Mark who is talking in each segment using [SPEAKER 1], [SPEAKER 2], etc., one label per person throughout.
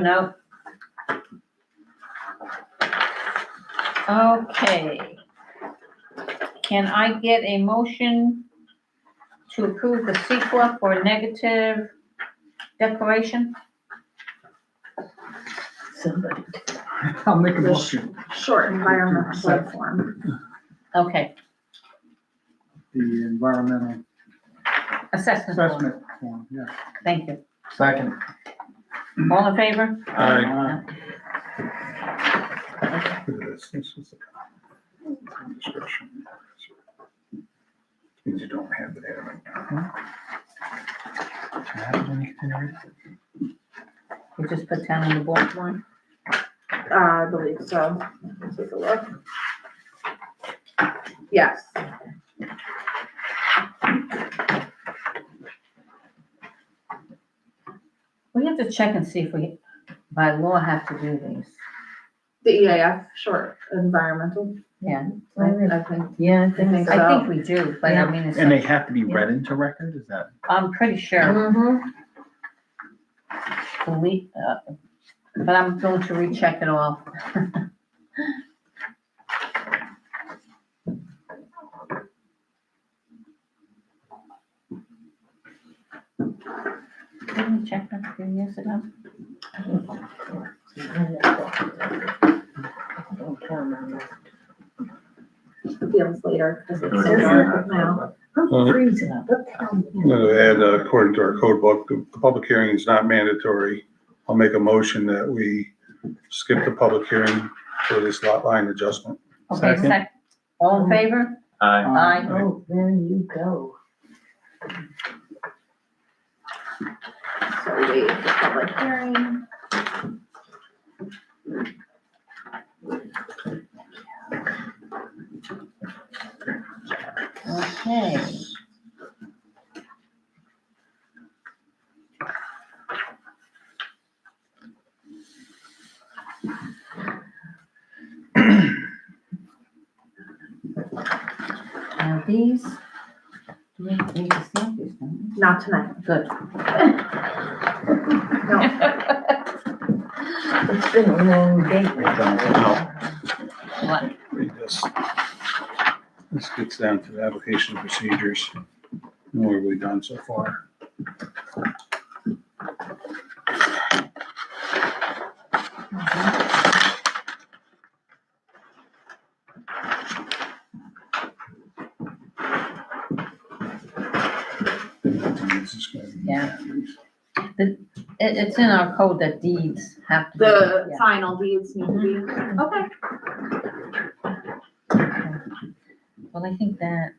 [SPEAKER 1] No. Okay. Can I get a motion to approve the CEQA for negative declaration?
[SPEAKER 2] Somebody.
[SPEAKER 3] I'll make a
[SPEAKER 2] Yes.
[SPEAKER 3] motion.
[SPEAKER 2] Short environmental
[SPEAKER 3] Second.
[SPEAKER 2] platform.
[SPEAKER 1] Okay,
[SPEAKER 3] The environmental
[SPEAKER 1] assessment. form.
[SPEAKER 3] assessment form, yeah.
[SPEAKER 1] Thank you.
[SPEAKER 4] Second.
[SPEAKER 1] All in favor?
[SPEAKER 3] Look at this, this is a description. Means you don't have it there right
[SPEAKER 1] We just put down on the board one.
[SPEAKER 2] Uh, I believe so. Let me Take a look. Yes.
[SPEAKER 1] We have to check and see if we, by law, have to do these.
[SPEAKER 2] The E EAF, short environmental,
[SPEAKER 1] Yeah,
[SPEAKER 2] I I think.
[SPEAKER 5] Yeah,
[SPEAKER 2] I think
[SPEAKER 1] I think
[SPEAKER 2] so.
[SPEAKER 1] we do, but I mean,
[SPEAKER 4] And
[SPEAKER 1] it's,
[SPEAKER 4] they have to be read into record, is that?
[SPEAKER 1] I'm pretty sure.
[SPEAKER 2] Mhm.
[SPEAKER 1] Delete, uh, but I'm going to recheck it all. Didn't we check that a few years ago?
[SPEAKER 2] Feels later because it's so
[SPEAKER 5] Okay.
[SPEAKER 2] dark now.
[SPEAKER 5] I'm freezing up.
[SPEAKER 6] No, And uh, according to our code book, the the public hearing is not mandatory. I'll make a motion that we skip the public hearing for this lot line adjustment.
[SPEAKER 1] Okay,
[SPEAKER 4] Second.
[SPEAKER 1] sec, all in favor?
[SPEAKER 4] Aye.
[SPEAKER 3] Uh,
[SPEAKER 1] Aye.
[SPEAKER 5] Oh, there you go.
[SPEAKER 2] So we, the public hearing.
[SPEAKER 1] Okay. Now these, do we need to stamp these, don't
[SPEAKER 2] Not tonight.
[SPEAKER 1] we? Good.
[SPEAKER 2] No,
[SPEAKER 5] It's been a long day.
[SPEAKER 1] What?
[SPEAKER 6] Read this. This gets down to the application procedures. What have we done so far? This is gonna be-
[SPEAKER 1] Yeah. It, it's in our code that deeds have to. be-
[SPEAKER 2] the
[SPEAKER 1] yeah.
[SPEAKER 2] final deeds need to be. Okay.
[SPEAKER 1] Well, I think that,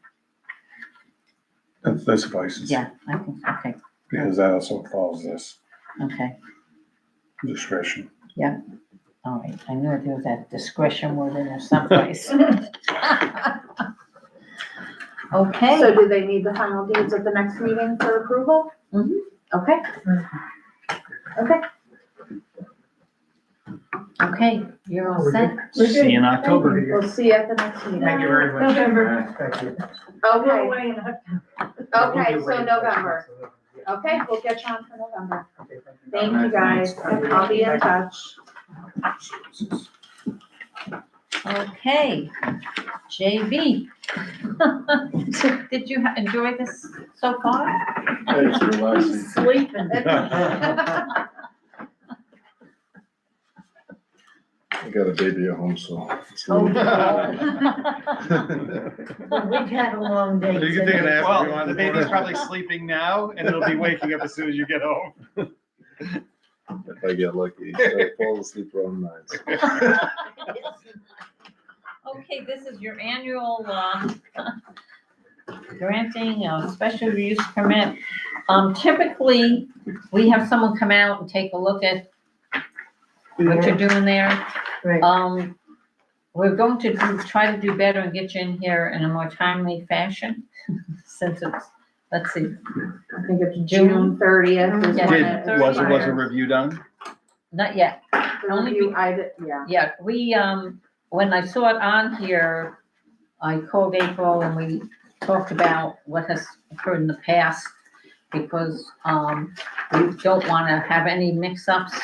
[SPEAKER 6] That that suffices.
[SPEAKER 1] yeah, I think, okay,
[SPEAKER 6] Because that also follows this
[SPEAKER 1] okay.
[SPEAKER 6] discretion.
[SPEAKER 1] All right, Oh, I knew there was that discretion word in there someplace.
[SPEAKER 2] So
[SPEAKER 1] Okay,
[SPEAKER 2] do they need the final deeds at the next meeting for approval?
[SPEAKER 1] Mhm.
[SPEAKER 2] Okay. Okay.
[SPEAKER 1] okay, you're all set.
[SPEAKER 4] See you in October.
[SPEAKER 2] We'll see you at the next meeting.
[SPEAKER 4] Thank you very much.
[SPEAKER 5] November.
[SPEAKER 4] Thank you.
[SPEAKER 2] Okay, okay, so November. Okay, we'll get you on for November. Thank you guys. I'll be in touch.
[SPEAKER 1] Okay, JB. Did you ha- enjoy this so far?
[SPEAKER 2] Sleeping.
[SPEAKER 7] I got a baby at home, so. it's a
[SPEAKER 1] Oh,
[SPEAKER 7] little-
[SPEAKER 1] no.
[SPEAKER 5] We've had a long day.
[SPEAKER 6] You can take an ass
[SPEAKER 5] today.
[SPEAKER 6] if you
[SPEAKER 4] Well,
[SPEAKER 6] want.
[SPEAKER 4] the baby's probably sleeping now and it'll be waking up as soon as you get home.
[SPEAKER 7] If I get lucky, I fall asleep around nine. so.
[SPEAKER 1] Okay, this is your annual, um, granting of special use permit. Um, typically, we have someone come out and take a look at what you're doing there.
[SPEAKER 5] Right.
[SPEAKER 1] Um, we're going to do- try to do better and get you in here in a more timely fashion, since it's, let's see,
[SPEAKER 2] I think it's June thirtieth is
[SPEAKER 1] Yeah.
[SPEAKER 2] when
[SPEAKER 4] Did,
[SPEAKER 2] it
[SPEAKER 4] was,
[SPEAKER 2] expires.
[SPEAKER 4] was a review done?
[SPEAKER 1] not yet.
[SPEAKER 2] The review, I, did- yeah.
[SPEAKER 1] Yeah, we, um, when I saw it on here, I called April and we talked about what has occurred in the past, because, um, we don't wanna have any mix-ups